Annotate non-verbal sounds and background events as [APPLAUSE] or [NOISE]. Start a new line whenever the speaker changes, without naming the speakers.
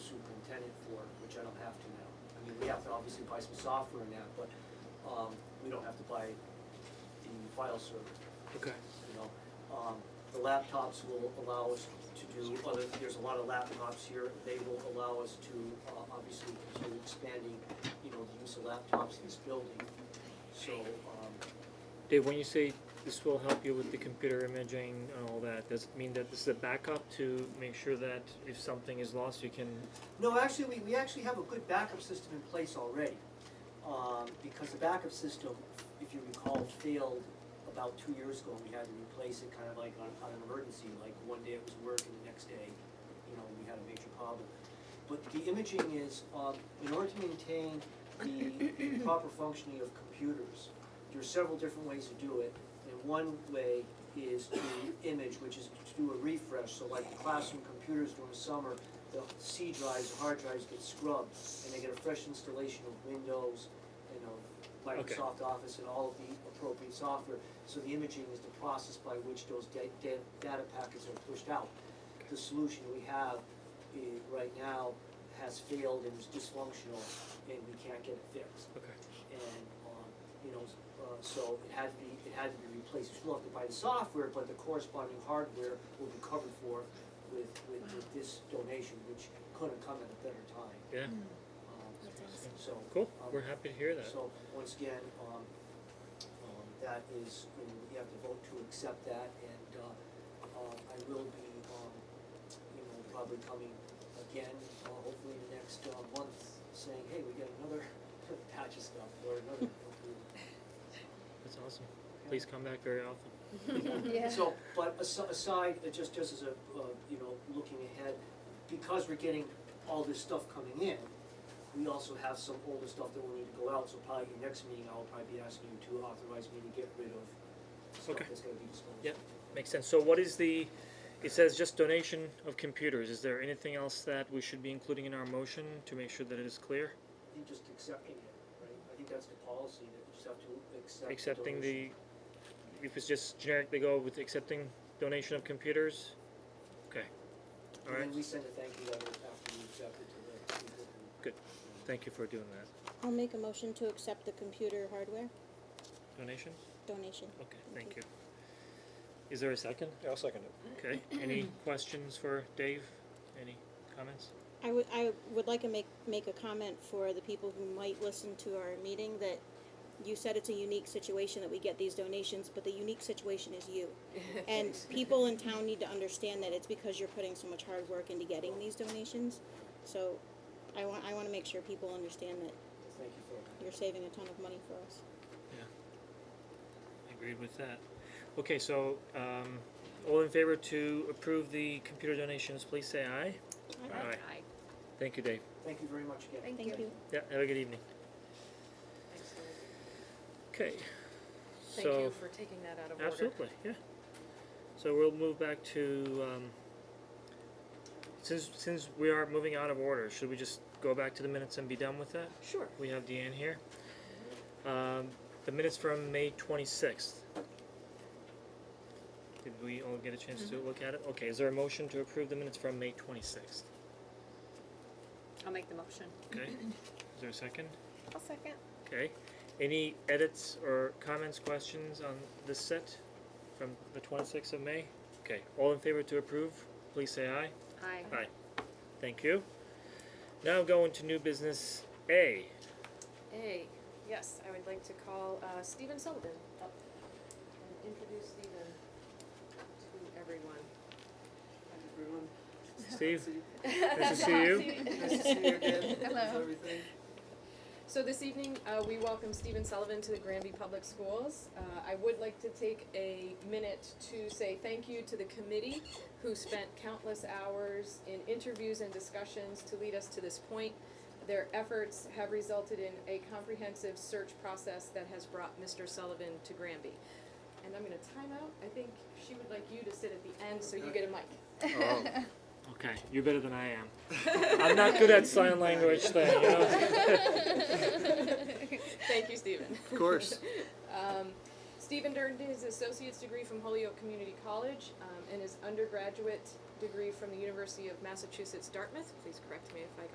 tenant for, which I don't have to now. I mean, we have to obviously buy some software now, but, um, we don't have to buy the file server
Okay.
you know. Um, The laptops will allow us to do other, there's a lot of laptops here, they will allow us to, uh, obviously, continue expanding, you know, the use of laptops in this building. So, um,
Dave, when you say this will help you with the computer imaging and all that, does it mean that this is a backup to make sure that if something is lost, you can?
no, actually, we, we actually have a good backup system in place already. Um, Because the backup system, if you recall, failed about two years ago, and we had to replace it kind of like on, on an emergency, like one day it was work and the next day, you know, we had a major problem. But the imaging is, um, in order to maintain the proper functioning of computers, there are several different ways to do it. And one way is to image, which is to do a refresh, so like the classroom computers during the summer, the C drives, hard drives get scrubbed, and they get a fresh installation of Windows and of
Okay.
Microsoft Office and all of the appropriate software. So the imaging is the process by which those da- da- data packets are pushed out. The solution we have eh, right now has failed and is dysfunctional, and we can't get it fixed.
Okay.
And, um, you know, uh, so it had to be, it had to be replaced. We still have to buy the software, but the corresponding hardware will be covered for with, with, with this donation, which could have come at a better time.
Yeah.
Um,
That's awesome.
So.
Cool.
um,
We're happy to hear that.
so, once again, um, um, that is, you know, you have to vote to accept that, and, uh, um, I will be, um, you know, probably coming again, uh, hopefully in the next, uh, month, saying, hey, we got another [LAUGHS] patch of stuff, or another.
That's awesome. Please come back very often.
Yeah.
So, but asi- aside, uh, just, just as a, uh, you know, looking ahead, because we're getting all this stuff coming in, we also have some older stuff that will need to go out, so probably your next meeting, I'll probably be asking you to authorize me to get rid of stuff
Okay.
that's gonna be disposed.
Yep. Makes sense. So what is the? It says just donation of computers. Is there anything else that we should be including in our motion to make sure that it is clear?
I think just accepting it, right? I think that's the policy, that you just have to accept the
Accepting
donation.
the. If it's just generic, they go with accepting donation of computers. Okay. All right.
And then we send a thank you letter after we accept it to the people who.
Good. Thank you for doing that.
I'll make a motion to accept the computer hardware
Donation.
donation.
Okay, thank you. Is there a second?
Yeah, I'll second it.
Okay, any questions for Dave? Any comments?
I would, I would like to make, make a comment for the people who might listen to our meeting that you said it's a unique situation that we get these donations, but the unique situation is you. And people in town need to understand that it's because you're putting so much hard work into getting these donations. So I want, I wanna make sure people understand that
Thank you for that.
you're saving a ton of money for us.
Agreed with that. Okay, so, um, all in favor to approve the computer donations, please say aye. Aye.
Aye.
Thank you, Dave.
Thank you very much again.
Thank
Thank you.
Yeah, have a good evening.
Excellent.
Okay,
Thank you
so,
for taking that out of order.
absolutely, yeah. So we'll move back to, um, since, since we are moving out of order, should we just go back to the minutes and be done with that?
Sure.
We have Deanne here. Um, the minutes from May twenty-sixth. Did we all get a chance to look at it? Okay, is there a motion to approve the minutes from May twenty-sixth?
I'll make the motion.
Okay, is there a second?
I'll second.
Okay, any edits or comments, questions on this set from the twenty-sixth of May? Okay, all in favor to approve, please say aye.
Aye.
Aye. Thank you. Now going to new business A.
A, yes, I would like to call uh, Stephen Sullivan up and introduce Stephen to everyone.
Everyone.
Steve,
Nice [LAUGHS]
to see you.
Nice to see you again. How's
Hello.
everything?
So this evening, uh, we welcome Stephen Sullivan to the Granby Public Schools. Uh, I would like to take a minute to say thank you to the committee who spent countless hours in interviews and discussions to lead us to this point. Their efforts have resulted in a comprehensive search process that has brought Mr. Sullivan to Granby. And I'm gonna time out. I think she would like you to sit at the end so you get a mic.
Okay, you're better than I am. I'm not good at sign language thing, you know?
Thank you, Stephen.
Of course.
Um, Stephen earned his associate's degree from Holyoke Community College um, and his undergraduate degree from the University of Massachusetts Dartmouth. Please correct me if I